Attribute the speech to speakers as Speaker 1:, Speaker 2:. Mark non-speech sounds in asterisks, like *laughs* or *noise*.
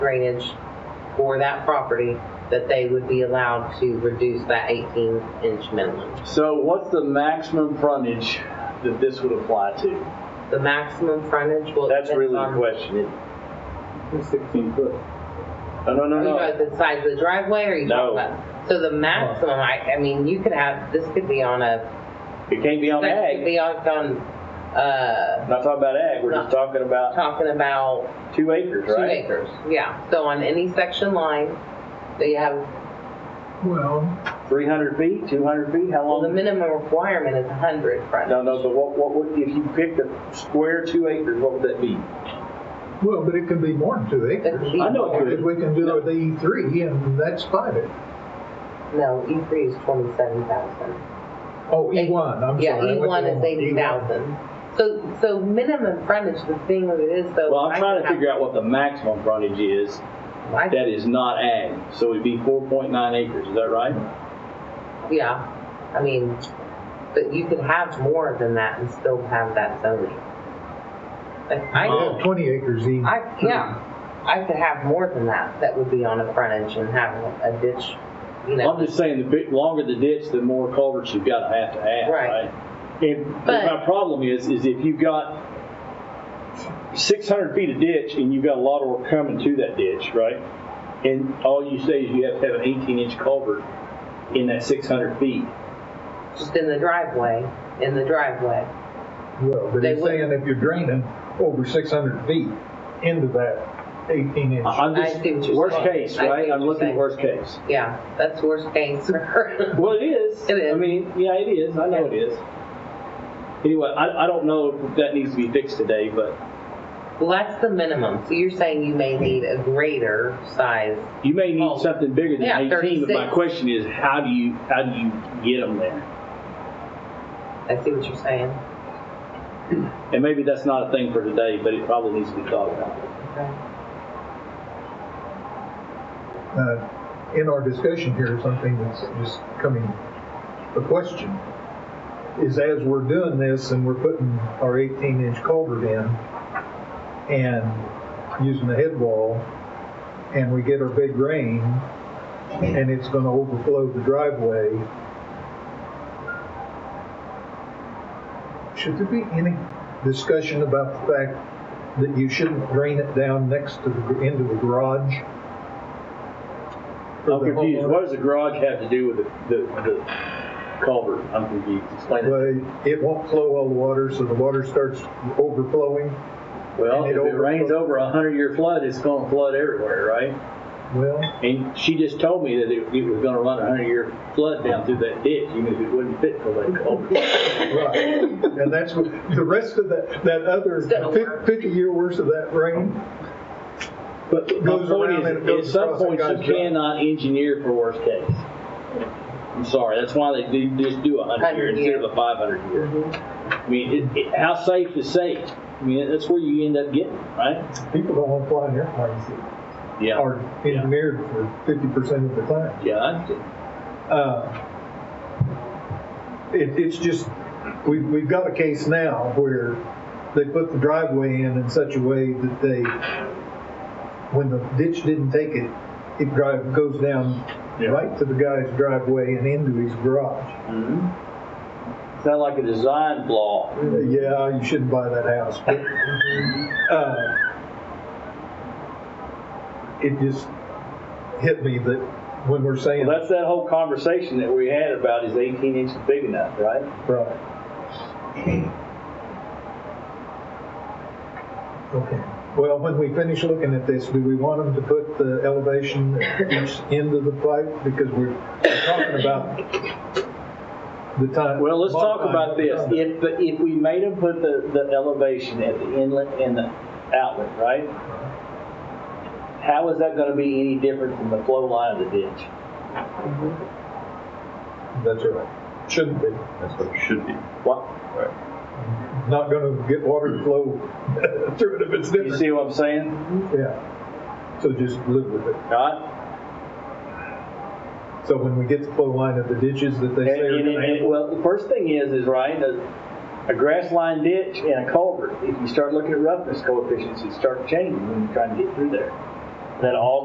Speaker 1: drainage for that property, that they would be allowed to reduce that 18-inch minimum.
Speaker 2: So what's the maximum frontage that this would apply to?
Speaker 1: The maximum frontage will.
Speaker 2: That's
Speaker 1: depend
Speaker 2: really the
Speaker 1: on-
Speaker 2: question. It-
Speaker 3: Sixteen foot.
Speaker 2: No, no, no,
Speaker 1: Are you
Speaker 2: no.
Speaker 1: talking about the size of the driveway, or are you
Speaker 2: No.
Speaker 1: talking about? So the maximum, I, I mean, you could have, this could be on a,
Speaker 2: It can't be on
Speaker 1: this could
Speaker 2: ag.
Speaker 1: be on, on, uh,
Speaker 2: We're Not talking about ag, we're just
Speaker 1: No.
Speaker 2: talking about
Speaker 1: talking about
Speaker 2: two acres,
Speaker 1: two
Speaker 2: right?
Speaker 1: acres. Yeah, so on any section line, they have
Speaker 4: Well,
Speaker 2: Three hundred feet, two hundred feet, how
Speaker 1: Well, the
Speaker 2: long?
Speaker 1: minimum requirement is 100 frontage.
Speaker 2: Um, No, no, but what, what, would- if you picked a square two acres, what would that be?
Speaker 4: well, but it can be more than two
Speaker 1: It could
Speaker 4: acres.
Speaker 1: be
Speaker 2: I know it
Speaker 1: more.
Speaker 2: could.
Speaker 4: If we can do it E three, and that's five acres.
Speaker 1: No, E3 is 27,000.
Speaker 4: Oh, E one, E I'm sorry.
Speaker 1: Yeah,
Speaker 4: I went
Speaker 1: E1 is
Speaker 4: wrong. E1.
Speaker 1: 80,000. So, so minimum frontage, the thing that it is, so.
Speaker 2: Well, I'm
Speaker 1: I
Speaker 2: trying
Speaker 1: could
Speaker 2: to
Speaker 1: have-
Speaker 2: figure out what the maximum frontage is
Speaker 1: I-
Speaker 2: that is not ag. So it'd be four point nine acres, is that right?
Speaker 1: Yeah, I mean, but you could have more than that and still have that zoning. Like, I,
Speaker 4: We have twenty acres E.
Speaker 1: I, yeah, I could have more than that, that would be on a frontage and have a ditch, you know.
Speaker 2: I'm just saying, the bit longer the ditch, the more culverts you've got to have to add,
Speaker 1: Right.
Speaker 2: right? And
Speaker 1: But-
Speaker 2: my problem is, is if you've got six hundred feet of ditch and you've got a lot of work coming to that ditch, right? And all you say is you have to have an eighteen inch culvert in that six hundred feet.
Speaker 1: Just in the driveway, in the driveway.
Speaker 4: Well, but
Speaker 1: They
Speaker 4: he's
Speaker 1: would-
Speaker 4: saying if you're draining over six hundred feet into that eighteen inch.
Speaker 2: I- I'm
Speaker 1: I
Speaker 2: just,
Speaker 1: see what you're
Speaker 2: worst
Speaker 1: saying.
Speaker 2: case,
Speaker 1: I see
Speaker 2: right?
Speaker 1: what
Speaker 2: I'm
Speaker 1: you're
Speaker 2: looking at
Speaker 1: saying.
Speaker 2: worst case.
Speaker 1: Yeah, that's worst case. *laughs*
Speaker 2: Well, it is.
Speaker 1: It is.
Speaker 2: I mean, yeah, it is. I know it is. Anyway, I, I don't know if that needs to be fixed today, but
Speaker 1: Well, that's the minimum. So you're saying you may need a greater size.
Speaker 2: you may
Speaker 1: Oh.
Speaker 2: need something bigger than
Speaker 1: Yeah,
Speaker 2: 18. But my
Speaker 1: 36.
Speaker 2: question is, how do you, how do you get them there?
Speaker 1: I see what you're saying.
Speaker 2: And maybe that's not a thing for today, but it probably needs to be thought about.
Speaker 1: Okay.
Speaker 4: Uh, In our discussion here, something that's just coming, a question, is as we're doing this and we're putting our eighteen inch culvert in and using the head wall, and we get our big rain, and it's gonna overflow the driveway, should there be any discussion about the fact that you shouldn't drain it down next to the, gr- into the garage? For
Speaker 2: I'm
Speaker 4: the
Speaker 2: confused.
Speaker 4: homeowner?
Speaker 2: What does the garage have to do with the, the, the culvert? I'm confused. Explain that.
Speaker 4: Well, it won't flow all the water, so the water starts overflowing.
Speaker 2: Well,
Speaker 4: and
Speaker 2: if
Speaker 4: it
Speaker 2: it rains
Speaker 4: overflows.
Speaker 2: over a hundred year flood, it's gonna flood everywhere, right?
Speaker 4: Well,
Speaker 2: And she just told me that it, it was gonna run a hundred year flood down through that ditch, even if it wouldn't fit for that culvert.
Speaker 4: right. And that's what, the rest of that, that other
Speaker 1: It's gonna work.
Speaker 4: fifty-year worth of that rain,
Speaker 2: But my
Speaker 4: goes
Speaker 2: point
Speaker 4: around and it
Speaker 2: is, at
Speaker 4: goes
Speaker 2: some
Speaker 4: across and
Speaker 2: point,
Speaker 4: goes
Speaker 2: you
Speaker 4: up.
Speaker 2: cannot engineer for worst case. I'm sorry, that's why they do, just do a hundred
Speaker 1: 100
Speaker 2: year instead
Speaker 1: year.
Speaker 2: of a five hundred year. I mean, it, it, how safe is safe? I mean, that's where you end up getting, right?
Speaker 4: people don't want to fly in airplanes that
Speaker 2: Yeah.
Speaker 4: are engineered for fifty percent of the time.
Speaker 2: Yeah, I-
Speaker 4: Uh, It, it's just, we, we've got a case now where they put the driveway in in such a way that they, when the ditch didn't take it, it drive, goes down
Speaker 2: Yeah.
Speaker 4: right to the guy's driveway and into his garage.
Speaker 2: sound like a design flaw.
Speaker 4: Uh, Yeah, you shouldn't buy that house, but, uh, it just hit me that when we're saying.
Speaker 2: Well, that's that whole conversation that we had about is eighteen inches big enough, right?
Speaker 4: Right. Okay, well, when we finish looking at this, do we want them to put the elevation at each end of the pipe? Because we're talking about the time.
Speaker 2: Well, let's talk
Speaker 4: modifying
Speaker 2: about
Speaker 4: what we're
Speaker 2: this.
Speaker 4: talking
Speaker 2: If, the- if we made them put the, the elevation at the inlet and the outlet, right? How is that gonna be any different from the flow line of the ditch?
Speaker 4: about. That's right, shouldn't be.
Speaker 3: That's what it should be.
Speaker 2: What,
Speaker 4: Not gonna get water to flow *laughs* through it if it's
Speaker 2: you
Speaker 4: different.
Speaker 2: see what I'm saying?
Speaker 4: Yeah, so just live with it.
Speaker 2: Right?
Speaker 4: So when we get the flow line of the ditches that they
Speaker 2: And,
Speaker 4: say are
Speaker 2: and,
Speaker 4: gonna
Speaker 2: and, well, the first thing is, is right, a, a grass line ditch and a culvert, if you start looking at roughness coefficients, it starts changing when you try to get through there. that all